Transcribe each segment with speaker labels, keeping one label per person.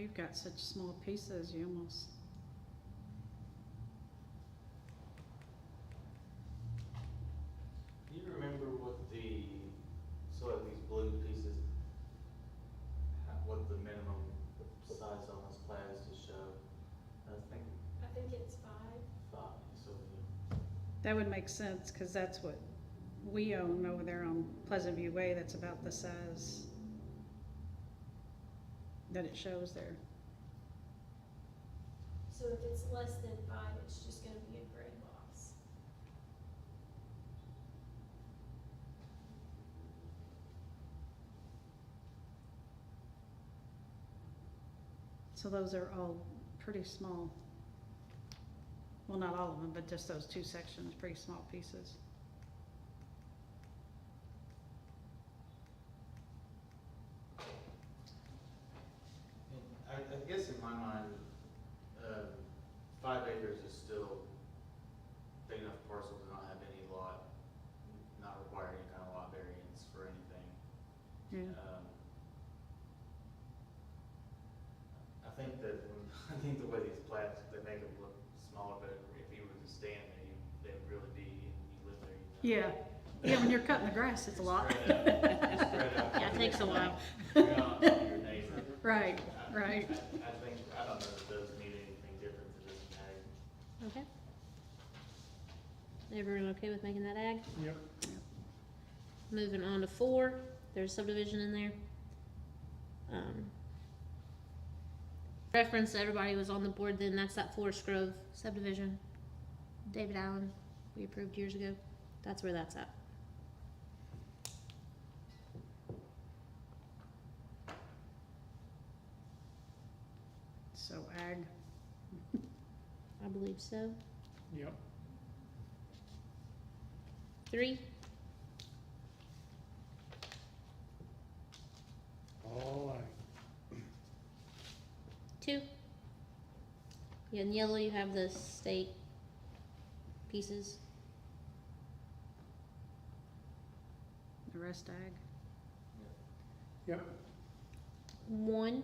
Speaker 1: you've got such small pieces, you almost.
Speaker 2: Do you remember what the, so like these blue pieces, ha- what the minimum size on this plan is to show? I was thinking
Speaker 3: I think it's five.
Speaker 2: five, so
Speaker 1: That would make sense, cause that's what we own over there on Pleasant View Way, that's about the size that it shows there.
Speaker 3: So if it's less than five, it's just gonna be a gray box.
Speaker 1: So those are all pretty small. Well, not all of them, but just those two sections, pretty small pieces.
Speaker 2: And I, I guess in my mind, um, five acres is still big enough parcel to not have any lot, not require any kind of lot variance for anything.
Speaker 1: Yeah,
Speaker 2: Um, I think that, when- I think the way these plats, they make it look smaller, but if you were to stand there, you, they would really be, and you live there, you
Speaker 1: yeah,
Speaker 2: know.
Speaker 1: yeah, when you're cutting the grass, it's a lot.
Speaker 2: Spread out, spread out.
Speaker 1: Yeah, it takes a while.
Speaker 2: You're not your neighbor.
Speaker 1: Right,
Speaker 2: I-
Speaker 1: right.
Speaker 2: I I think, I don't know if those need anything different to this tag.
Speaker 4: Okay. Everyone okay with making that ag?
Speaker 5: Yep.
Speaker 4: Moving on to four, there's subdivision in there. Um, Reference, everybody was on the board then, that's that Forest Grove subdivision. David Allen, we approved years ago, that's where that's at.
Speaker 1: So ag,
Speaker 4: I believe so.
Speaker 5: Yep.
Speaker 4: Three,
Speaker 5: All right.
Speaker 4: two. Yeah, In yellow, you have the state pieces.
Speaker 1: the rest ag.
Speaker 5: Yep.
Speaker 4: One.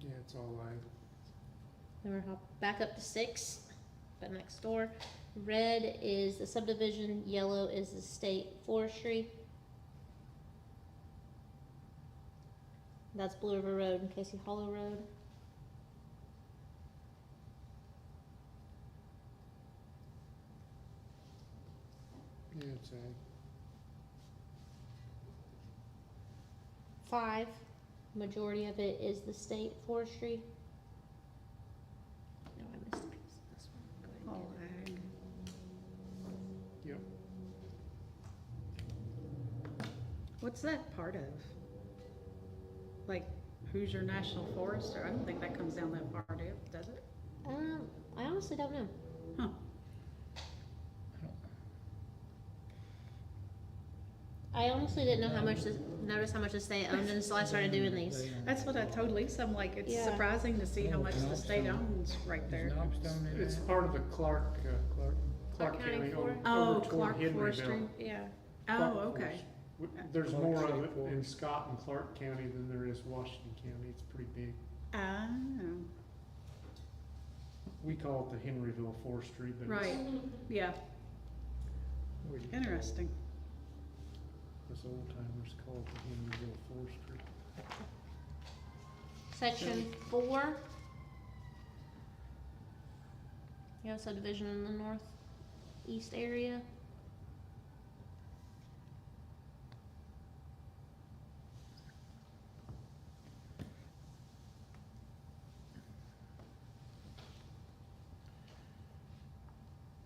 Speaker 5: Yeah, it's all right.
Speaker 4: Then we're hop back up to six, but next door. Red is the subdivision, yellow is the state forestry. That's Blue River Road and Casey Hollow Road.
Speaker 5: Yeah, it's a,
Speaker 4: Five, majority of it is the state forestry. No, I missed a piece. This one. Go ahead
Speaker 1: All
Speaker 4: and get
Speaker 1: ag.
Speaker 5: yep.
Speaker 1: What's that part of? Like, who's your national forester? I don't think that comes down that far, do it? does it?
Speaker 4: it. Um, I honestly don't know.
Speaker 1: Huh,
Speaker 4: I honestly didn't know how much this, notice how much this state owned until I started doing these.
Speaker 1: that's what I told Lisa, I'm like, it's
Speaker 4: Yeah.
Speaker 1: surprising to see how much the state owns right there.
Speaker 5: It's part of the Clark, uh, Clark, Clark
Speaker 4: County
Speaker 5: County
Speaker 4: Forest?
Speaker 5: over
Speaker 1: Oh,
Speaker 5: over toward
Speaker 1: Clark Forestry,
Speaker 5: Henryville.
Speaker 1: yeah.
Speaker 5: Clark
Speaker 1: Oh,
Speaker 5: Forest.
Speaker 1: okay,
Speaker 5: W- There's
Speaker 6: Clark
Speaker 5: more
Speaker 6: City
Speaker 5: of it in
Speaker 6: Forest.
Speaker 5: Scott and Clark County than there is Washington County. It's pretty big.
Speaker 1: oh,
Speaker 5: We call it the Henryville Forestry, but it's
Speaker 1: right, yeah,
Speaker 5: what do you call it?
Speaker 1: interesting.
Speaker 5: Us old timers call it the Henryville Forestry.
Speaker 4: Section four. You have subdivision in the northeast area.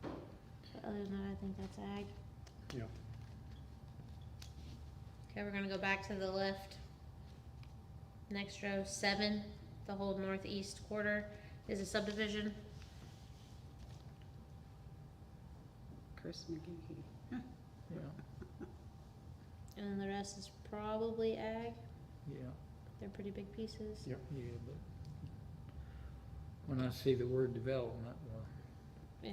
Speaker 4: But other than that, I think that's ag.
Speaker 5: Yeah.
Speaker 4: Okay, we're gonna go back to the left. Next row, seven, the whole northeast quarter is a subdivision.
Speaker 1: Chris McGee.
Speaker 6: Yeah,
Speaker 4: And then the rest is probably ag.
Speaker 6: yeah,
Speaker 4: They're pretty big pieces.
Speaker 5: Yeah.
Speaker 6: yeah, but when I see the word development,